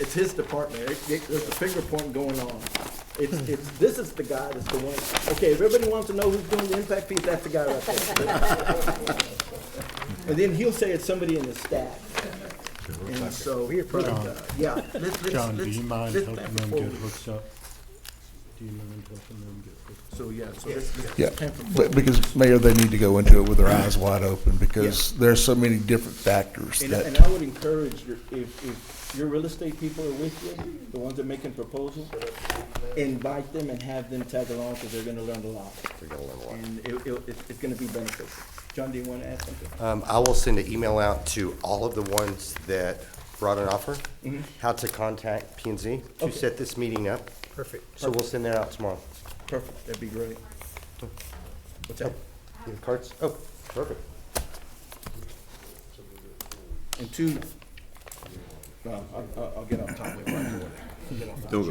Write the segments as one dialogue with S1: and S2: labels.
S1: it's his department, It- it- there's a finger pointing going on. It's, it's, this is the guy that's the one, okay, if everybody wants to know who's doing the impact fees, that's the guy right there. And then he'll say it's somebody in the staff. And so, here, uh, yeah, let's, let's, let's.
S2: John, do you mind
S1: let's
S2: helping
S1: back
S2: them
S1: forward.
S2: get hooked up? Do you mind helping them get hooked up?
S1: So, yeah, so this,
S3: Yeah,
S1: this came from.
S3: but because, Mayor, they need to go into it with their eyes wide open, because there's so many different factors
S1: And, and
S3: that,
S1: I would encourage, your- if, if your real estate people are with you, the ones that are making proposals, invite them and have them tag along, because they're gonna learn a lot. They're gonna learn a lot. And it, it, it's, it's gonna be beneficial. John, do you wanna add something?
S4: Um, I will send an email out to all of the ones that brought an offer, how to contact P and Z to
S1: Mm-hmm. Okay.
S4: set this meeting up.
S1: Perfect.
S4: So we'll send that out tomorrow.
S1: Perfect, that'd be great. What's that?
S4: You have Cards? Oh, perfect.
S1: And two, no, I'll- I'll, I'll get off topic right away.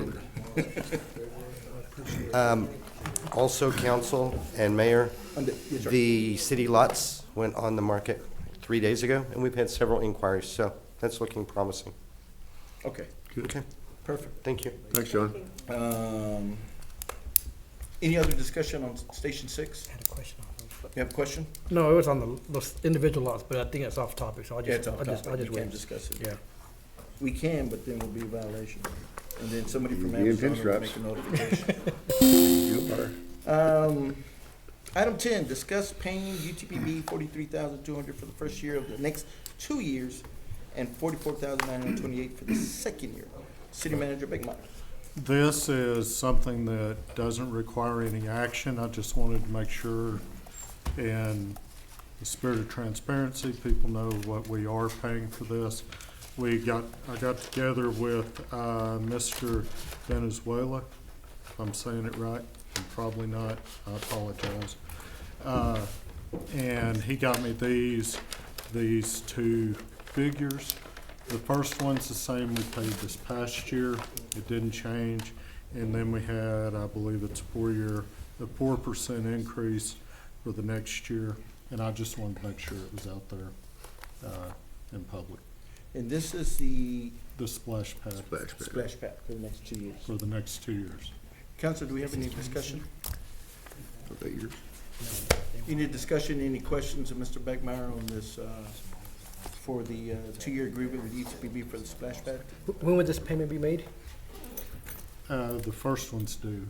S4: Also, council and mayor,
S1: Under- yes, sir.
S4: the city lots went on the market three days ago, and we've had several inquiries, so that's looking promising.
S1: Okay,
S4: Okay,
S1: perfect.
S4: thank you.
S5: Thanks, John.
S1: Um, any other discussion on station six?
S6: had a question.
S1: You have a question?
S6: No, it was on the, those individual lots, but I think it's off topic, so I'll
S1: Yeah,
S6: just,
S1: it's off
S6: I'll just, I'll
S1: topic,
S6: just
S1: we can't
S6: wait.
S1: discuss it.
S6: Yeah.
S1: We can, but then we'll be a violation. And then somebody from
S5: You need
S1: Amazon will
S5: pinstripes.
S1: make a notification.
S5: You are.
S1: Um, item ten, discuss paying UTPB forty-three thousand two hundred for the first year of the next two years and forty-four thousand nine hundred twenty-eight for the second year. City Manager Bickmeyer.
S2: This is something that doesn't require any action. I just wanted to make sure in the spirit of transparency, people know what we are paying for this. We got, I got together with, uh, Mr. Venezuela, if I'm saying it right, I'm probably not, I apologize. Uh, and he got me these, these two figures. The first one's the same we paid this past year, it didn't change. And then we had, I believe it's four-year, a four percent increase for the next year. And I just wanted to make sure it was out there, uh, in public,
S1: And this is the
S2: the splash pad
S5: Thanks, man.
S1: splash pad for the next two years.
S2: for the next two years.
S1: Council, do we have any discussion?
S5: Are they yours?
S1: Any discussion, any questions of Mr. Bickmeyer on this, uh, for the, uh, two-year agreement with UTPB for the splash pad?
S6: Wh- When would this payment be made?
S2: Uh, the first one's due,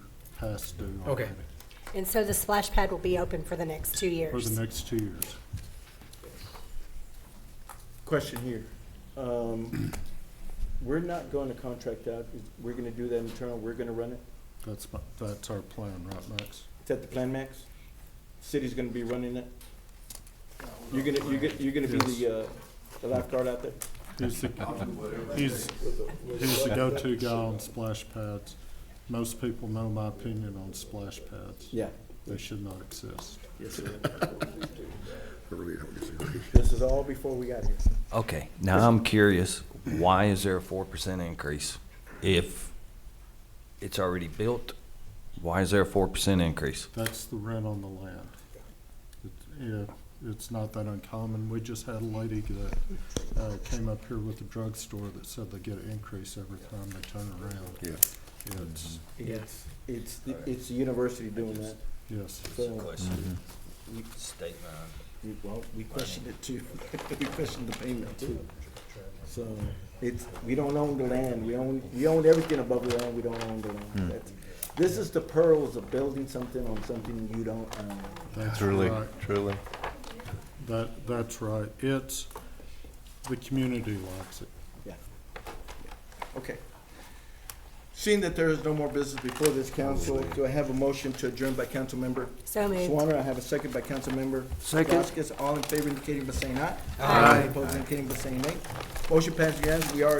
S2: past due
S6: Okay.
S2: already,
S7: And so the splash pad will be open for the next two
S2: for
S7: years.
S2: the next two years.
S1: Question here. Um, We're not going to contract out, we're going to do that internal, we're going to run it.
S2: That's my, that's our plan, right, Max?
S1: Is that the plan, Max? City's going to be running it? You're going to, you're going to, you're going to be the, uh, the lifeguard out there?
S2: He's the, he's, he's the go-to guy on splash pads. Most people know my opinion on splash pads.
S1: Yeah.
S2: They should not exist.
S1: Yes, sir.
S5: I really don't disagree.
S1: This is all before we got here.
S8: Okay, now I'm curious, why is there a four percent increase? If it's already built, why is there a four percent increase?
S2: That's the rent on the land. It- it- it's not that uncommon. We just had a lady that, uh, came up here with a drugstore that said they get an increase every time they turn around.
S5: Yeah.
S2: It's,
S1: It's, it's, the- it's the university doing that.
S2: yes.
S1: So,
S8: Mm-hmm.
S1: we-
S8: State
S1: we- well, we questioned it too. We questioned the payment too. So it's, we don't own the land. We own, we own everything above the land. We don't own the land. That's- This is the pearls of building something on something you don't uh, own.
S2: That's right.
S3: truly.
S2: That, that's right. It's, the community likes it.
S1: Okay. Seeing that there is no more business before this council, do I have a motion to adjourn by council member
S7: So moved.
S1: Swanner? I have a second by council member
S8: Second.
S1: Vasquez. All in favor indicating by saying aye. Aye. Opposing indicating by saying nay. Motion passed unanimously. We are.